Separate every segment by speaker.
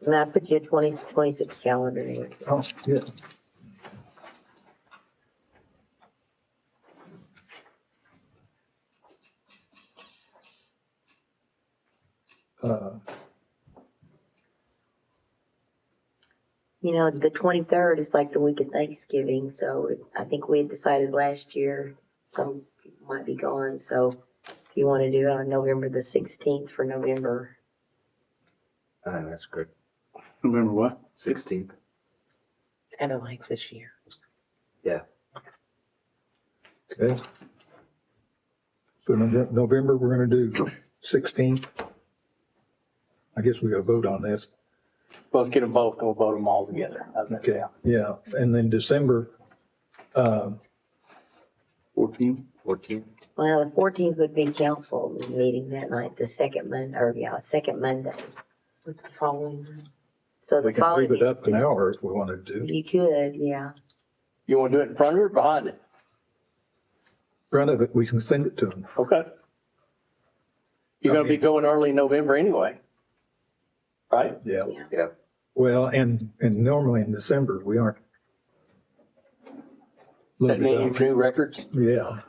Speaker 1: And that puts you at twenty, twenty-six calendar year.
Speaker 2: Oh, good. Uh,
Speaker 1: You know, the twenty-third is like the week of Thanksgiving, so it- I think we had decided last year some people might be gone, so if you want to do it on November the sixteenth for November,
Speaker 3: Ah, that's good.
Speaker 4: November what?
Speaker 3: Sixteenth.
Speaker 5: Kind of like this year.
Speaker 2: okay. So Nove- November, we're gonna do sixteenth. I guess we gotta vote on this.
Speaker 4: Well, Let's get them both, we'll vote them all together. How's that
Speaker 2: Okay, yeah, and then December, um,
Speaker 4: Fourteen?
Speaker 3: Fourteenth.
Speaker 1: well, the fourteenth would be council meeting that night, the second Monday, or yeah, second Monday.
Speaker 5: It's the following.
Speaker 1: So the
Speaker 2: we can leave
Speaker 1: following,
Speaker 2: it up an hour if we wanna do.
Speaker 1: you could, yeah.
Speaker 4: You wanna do it in front of it or behind it?
Speaker 2: Front of it, we can send it to them.
Speaker 4: Okay. You're gonna be going early November anyway. Right?
Speaker 2: Yeah,
Speaker 3: Yeah.
Speaker 2: well, and, and normally in December, we aren't.
Speaker 4: Setting any new records?
Speaker 2: Yeah,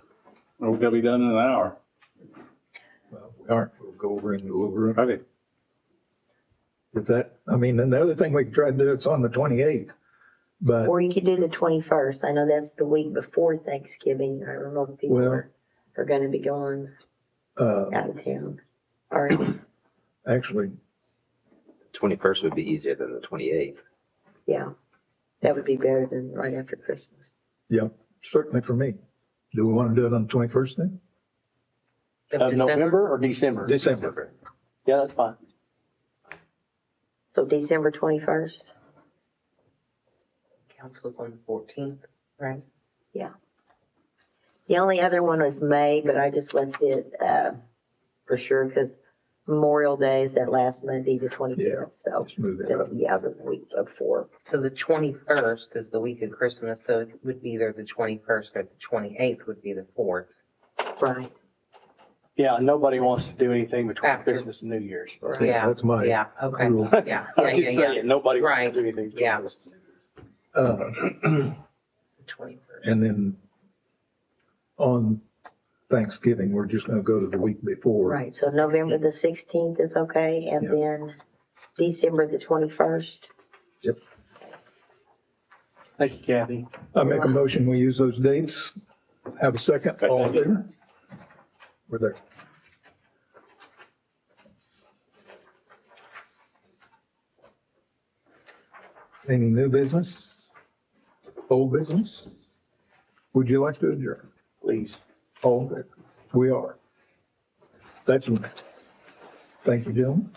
Speaker 6: We're gonna be done in an hour.
Speaker 2: well, we aren't, we'll go over and go over. it.
Speaker 6: Okay.
Speaker 2: Is that, I mean, and the other thing we could try to do, it's on the twenty-eighth, but,
Speaker 1: Or you could do the twenty-first. I know that's the week before Thanksgiving. I don't know if people
Speaker 2: Well-
Speaker 1: are, are gonna be going
Speaker 2: uh,
Speaker 1: out of town. Or,
Speaker 2: actually,
Speaker 3: Twenty-first would be easier than the twenty-eighth.
Speaker 1: yeah, that would be better than right after Christmas.
Speaker 2: yeah, certainly for me. Do we wanna do it on the twenty-first then?
Speaker 5: of
Speaker 4: Of
Speaker 5: December.
Speaker 4: November or December?
Speaker 2: December.
Speaker 4: Yeah, that's fine.
Speaker 1: So December twenty-first,
Speaker 5: Council's on the fourteenth, right?
Speaker 1: the only other one was May, but I just left it, uh, for sure, because Memorial Day is that last Monday, the
Speaker 2: Yeah.
Speaker 1: twenty-fifth, so.
Speaker 2: Let's move it
Speaker 1: That'll
Speaker 2: up.
Speaker 1: be out of the week before.
Speaker 5: So the twenty-first is the week of Christmas, so it would be either the twenty-first or the twenty-eighth would be the fourth.
Speaker 1: Right.
Speaker 4: Yeah, nobody wants to do anything between
Speaker 5: After.
Speaker 4: Christmas and New Year's.
Speaker 5: Yeah,
Speaker 2: That's my.
Speaker 5: Yeah, okay,
Speaker 2: rule.
Speaker 5: yeah, yeah,
Speaker 4: I'm
Speaker 5: yeah,
Speaker 4: just
Speaker 5: yeah.
Speaker 4: saying, nobody wants to
Speaker 5: Right.
Speaker 4: do anything. between
Speaker 5: Yeah.
Speaker 4: Christmas and New
Speaker 2: Uh,
Speaker 4: Year's.
Speaker 5: Twenty-first.
Speaker 2: And then on Thanksgiving, we're just gonna go to the week before.
Speaker 1: Right, so November the sixteenth is okay, and
Speaker 2: Yeah.
Speaker 1: then December the twenty-first.
Speaker 4: Thank you, Kathy.
Speaker 2: I make a motion, we use those dates. Have a second, all in favor? We're there. Any new business? Old business? Would you like to adjourn?
Speaker 4: Please.
Speaker 2: All in favor? We are. That's, thank you, gentlemen.